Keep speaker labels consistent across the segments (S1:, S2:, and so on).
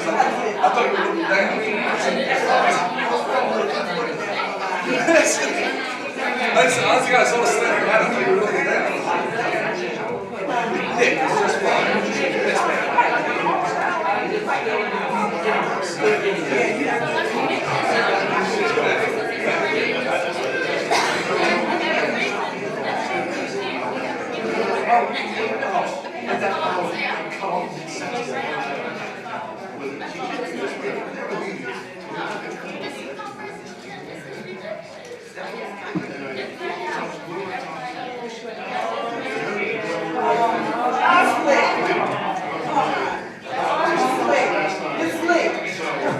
S1: I thought you were looking back at me. I said, I said, honestly, I saw the slender man. I thought you were looking down. Yeah, it's just fine. It's fine.
S2: I slick. It's slick.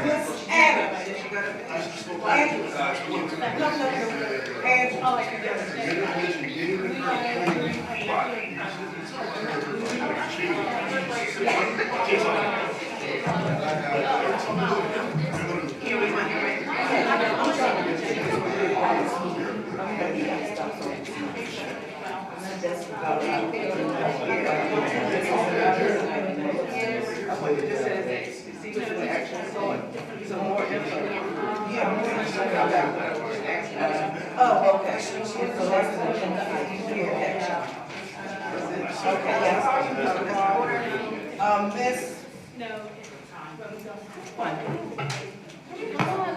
S2: It's adamant. And, no, no, no. And, oh, Oh, okay. Okay, yes. Um, Miss,
S3: No.
S4: Uh,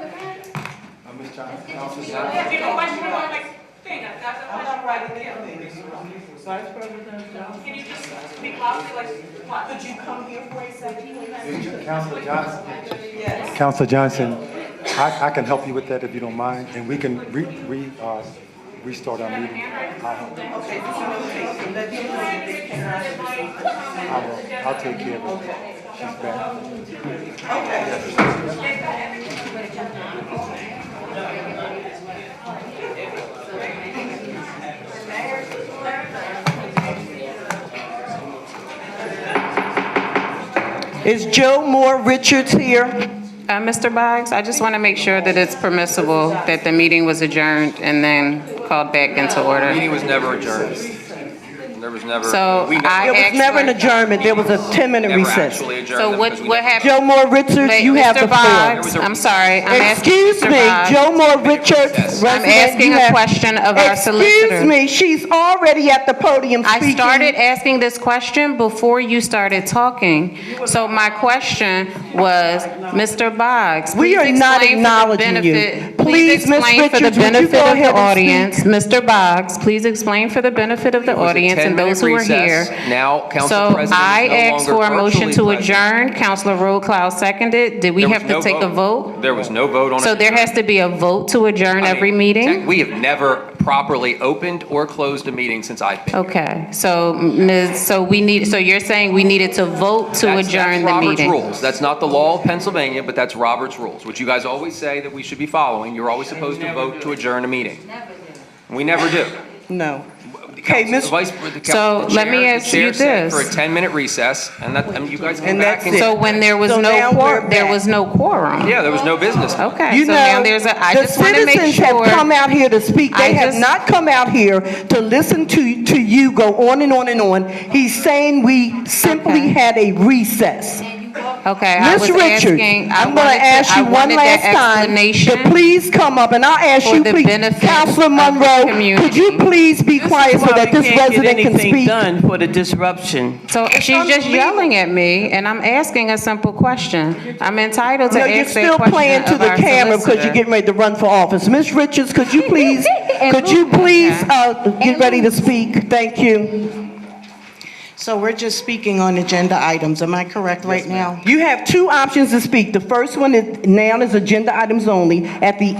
S4: Ms. Johnson,
S3: If you don't want to, I'm like, thing, I've got
S2: I'm
S3: a
S2: not
S3: question.
S2: writing anything. Vice President Johnson.
S3: Can you just speak loudly, like, what?
S2: Could you come here for a second?
S4: Counselor Johnson.
S2: Yes.
S4: Counselor Johnson, I, I can help you with that if you don't mind, and we can re, re, uh, restart our meeting. I'll, help you.
S2: Okay, so let you
S4: I will, I'll take care of it. She's back.
S2: Okay. Is Joe Moore Richards here?
S5: Uh, Mr. Boggs, I just want to make sure that it's permissible that the meeting was adjourned and then called back into order.
S6: Meeting was never adjourned. There was never.
S5: So
S6: we never-
S5: I
S2: There was never an
S5: actually-
S2: adjournment, there was a 10-minute
S6: Never
S2: recess.
S6: actually adjourned.
S5: So
S6: them
S5: what,
S6: because we
S5: what
S6: never-
S5: happened?
S2: Joe Moore Richards, you have the
S5: Mr.
S2: floor.
S5: Boggs, I'm sorry, I'm asking
S2: Excuse
S5: Mr.
S2: me,
S5: Boggs.
S2: Joe Moore Richards, resident.
S5: I'm asking
S2: you
S5: a
S2: have-
S5: question of our
S2: Excuse
S5: solicitor.
S2: me, she's already at the podium speaking.
S5: I started asking this question before you started talking. So my question was, Mr. Boggs,
S2: We
S5: please
S2: are not
S5: explain for the
S2: acknowledging you.
S5: benefit.
S2: Please, Ms.
S5: explain for the
S2: Richards, would you go
S5: benefit of
S2: ahead and
S5: the
S2: speak?
S5: audience. Mr. Boggs, please explain for the benefit of the
S6: was a
S5: audience and
S6: 10-minute
S5: those who are here.
S6: recess. Now, Council
S5: So
S6: President is
S5: I
S6: no
S5: asked
S6: longer
S5: for a motion to
S6: virtually present.
S5: adjourn. Counselor Roadcloud seconded. Did we
S6: There was
S5: have to
S6: no
S5: take a vote?
S6: There was no vote on it.
S5: So there has to be a vote to adjourn
S6: I mean,
S5: every
S6: tech-
S5: meeting?
S6: We have never properly opened or closed a meeting since I've been.
S5: Okay, so Ms., so we need, so you're saying we needed to vote to
S6: That's-
S5: adjourn the
S6: that's
S5: meeting?
S6: Robert's rules. That's not the law of Pennsylvania, but that's Robert's rules, which you guys always say that we should be following. You're always supposed to vote to adjourn a meeting. We never do.
S2: No.
S6: The
S2: Okay,
S6: council-
S2: Ms.
S6: the vice- the council-
S5: So
S6: the
S5: let me
S6: chair- the
S5: ask you
S6: chair said For
S5: this.
S6: a 10-minute recess, and that, I mean, you guys come
S2: And
S6: back
S2: that's
S6: and.
S2: it.
S5: So when there was
S2: So
S5: no,
S2: now
S5: quor-
S2: we're
S5: there
S2: back.
S5: was no quorum?
S6: Yeah, there was no business.
S5: Okay,
S2: You
S5: so now
S2: know,
S5: there's a, I
S2: the
S5: just want to make
S2: citizens have come
S5: sure.
S2: out here to speak.
S5: I
S2: They have
S5: just-
S2: not come out here to listen to, to you go on and on and on. He's saying we simply
S5: Okay.
S2: had a recess.
S5: Okay, I was
S2: Ms. Richards,
S5: asking, I
S2: I'm gonna
S5: wanted to-
S2: ask
S5: I
S2: you one
S5: wanted
S2: last
S5: that
S2: time to
S5: explanation.
S2: please come up, and I'll ask
S5: for
S2: you,
S5: the
S2: please.
S5: benefit
S2: Counselor
S5: of the
S2: Monroe, could you
S5: community.
S2: please be quiet so that this resident can speak?
S7: Done for the disruption.
S5: So she's just yelling at me, and I'm asking a simple question. I'm entitled to
S2: No, you're
S5: ask
S2: still
S5: that question
S2: playing to
S5: of
S2: the
S5: our
S2: camera because you're
S5: solicitor.
S2: getting ready to run for office. Ms. Richards, could you please, could you please, uh, get ready to speak? Thank you.
S8: So we're just speaking on agenda items, am I correct right now?
S2: You have two options to speak. The first one is, now is agenda items only. At the